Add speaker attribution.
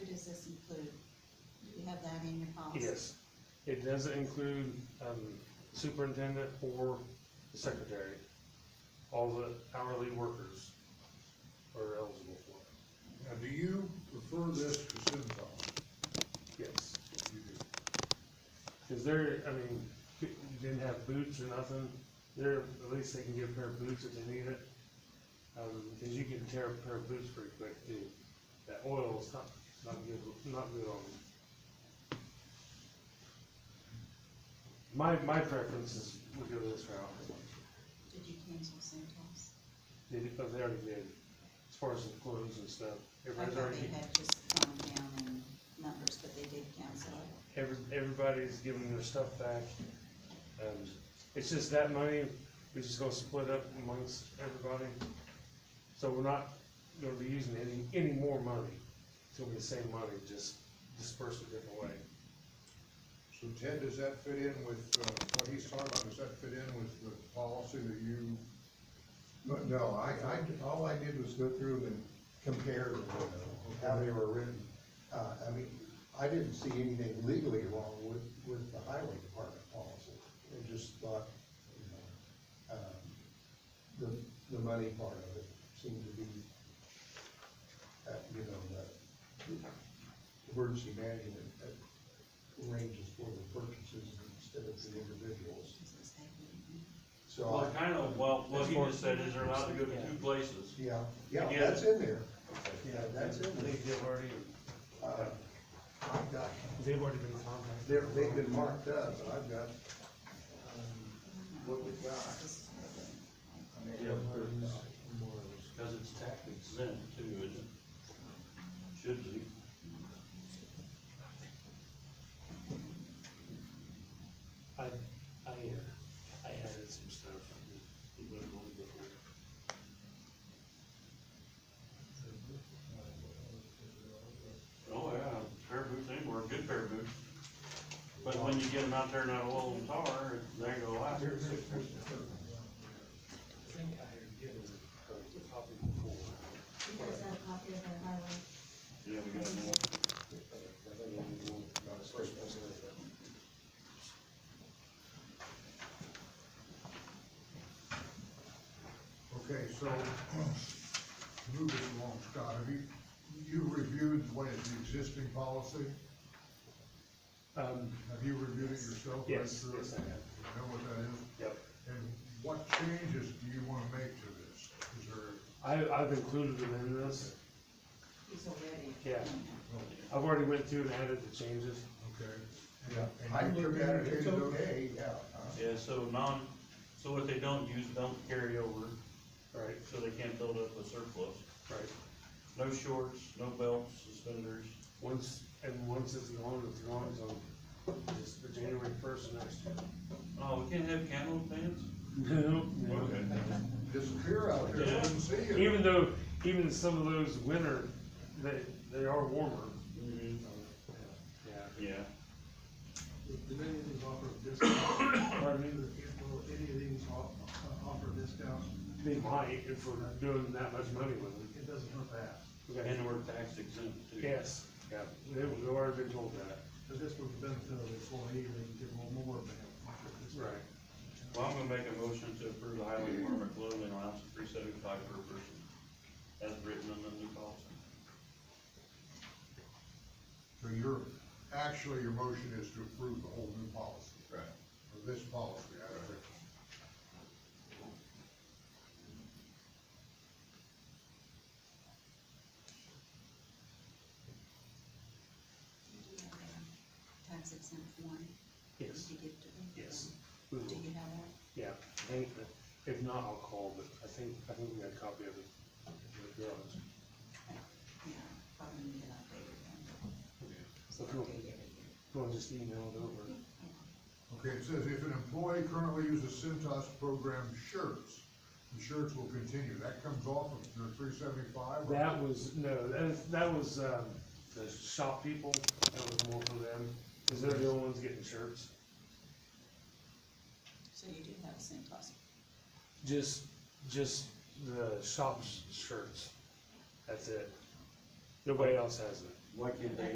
Speaker 1: have that in your policy?
Speaker 2: Yes, it doesn't include, um, superintendent or the secretary. All the hourly workers are eligible for it,
Speaker 3: Now, do you prefer this to Centon?
Speaker 2: yes.
Speaker 3: You do.
Speaker 2: Cause they're, I mean, you didn't have boots or nothing, they're, at least they can get a pair of boots if they need it. Um, cause you can tear a pair of boots pretty quick too. That oil's not, not good, not good on them. My, my preference is we go this route.
Speaker 1: Did you cancel Centos?
Speaker 2: Did it, but they already did, as far as the clothes and stuff.
Speaker 1: I
Speaker 2: Everybody's
Speaker 1: thought
Speaker 2: already,
Speaker 1: they had just gone down in numbers, but they did cancel it.
Speaker 2: every, everybody's giving their stuff back. And it's just that money, we're just gonna split up amongst everybody. So we're not gonna be using any, any more money. It's gonna be the same money, just dispersed a different way.
Speaker 3: So Ted, does that fit in with, uh, what he's talking about, does that fit in with the policy that you,
Speaker 4: But no, I, I, all I did was go through and compare, you know, how they were written. Uh, I mean, I didn't see anything legally wrong with, with the highway department policy. I just thought, you know, um, the, the money part of it seemed to be, uh, you know, the emergency management uh, ranges for the purchases instead of the individuals.
Speaker 1: This is happening.
Speaker 4: So I.
Speaker 5: Well, kind of, well, what he
Speaker 2: That's
Speaker 5: just said is they're allowed to go to two places.
Speaker 4: Yeah, yeah,
Speaker 5: Yeah.
Speaker 4: that's in there. Yeah, that's it.
Speaker 2: They've already,
Speaker 4: Uh, I've got,
Speaker 2: they've already been contacted.
Speaker 4: they're, they've been marked up, but I've got, um, what we got.
Speaker 1: This is
Speaker 5: Because it's tax exempt too, isn't it? Should be.
Speaker 2: I, I, uh, I added some stuff. It wasn't on before.
Speaker 5: Oh, yeah, pair of boots anywhere, good pair of boots. But when you get them out there not oil and tar, they go out here.
Speaker 2: I think I had given her the copy before.
Speaker 1: You guys have a copy of that highway?
Speaker 5: Yeah, we got more.
Speaker 3: okay, so, moving along, Scott, have you, you reviewed what is the existing policy?
Speaker 2: Um,
Speaker 3: Have you reviewed it yourself? read
Speaker 2: yes,
Speaker 3: through it?
Speaker 2: yes, I have.
Speaker 3: You Know what that is?
Speaker 2: Yep.
Speaker 3: And what changes do you wanna make to this? Is there,
Speaker 2: I, I've included them in this.
Speaker 1: He's already.
Speaker 2: Yeah. I've already went through and added the changes.
Speaker 3: okay?
Speaker 4: Yeah, I
Speaker 3: And you
Speaker 4: look at it,
Speaker 3: communicated
Speaker 4: it's
Speaker 3: those?
Speaker 4: okay, yeah. uh,
Speaker 5: Yeah, so non, so what they don't use, don't carry over,
Speaker 2: Right,
Speaker 5: so they can't build up a surplus.
Speaker 2: right.
Speaker 5: No shorts, no belts, suspenders.
Speaker 2: Once, and once it's gone, it's gone, it's on, it's the January first next
Speaker 5: Oh, we can't have camo pants?
Speaker 2: year. No, no.
Speaker 3: Disappear out there, I didn't see it.
Speaker 2: Even though, even some of those winter, they, they are warmer.
Speaker 5: Mhm.
Speaker 2: Yeah.
Speaker 5: Yeah.
Speaker 6: Do many of these offer a discount?
Speaker 2: Pardon me?
Speaker 6: Will any of these off- uh, offer a discount?
Speaker 2: They might, if we're not doing that much money with them.
Speaker 6: It doesn't hurt that,
Speaker 2: Okay.
Speaker 5: And we're tax exempt too.
Speaker 2: Yes, yeah, they, we've already been told that.
Speaker 6: but this would benefit the employee, they can get a little more benefit.
Speaker 5: Well, I'm gonna make a motion to approve the highway department clothing allowance of three seventy-five per person, as written in the new policy.
Speaker 3: So your, actually, your motion is to approve the whole new policy,
Speaker 5: Right.
Speaker 3: or this policy, I think.
Speaker 1: Tax exempt one.
Speaker 2: Yes,
Speaker 1: Did you give to them?
Speaker 2: yes, we
Speaker 1: Do
Speaker 2: will.
Speaker 1: you have one?
Speaker 2: Yeah, I think, that- if not, I'll call, but I think, I think we got a copy of it. if you're honest.
Speaker 1: Yeah, probably need an updated one. So
Speaker 2: If you want-
Speaker 1: update
Speaker 2: if
Speaker 1: every year.
Speaker 2: you want to just email it over,
Speaker 3: Okay, it says if an employee currently uses Centos program shirts, the shirts will continue, that comes off of the three seventy-five?
Speaker 2: that was, no, that, that was, um, the shop people, that was more for them, because they're the only ones getting shirts.
Speaker 1: So you do have a Centos.
Speaker 2: Just, just the shop's shirts, that's it. Nobody else has it.
Speaker 5: Why can't they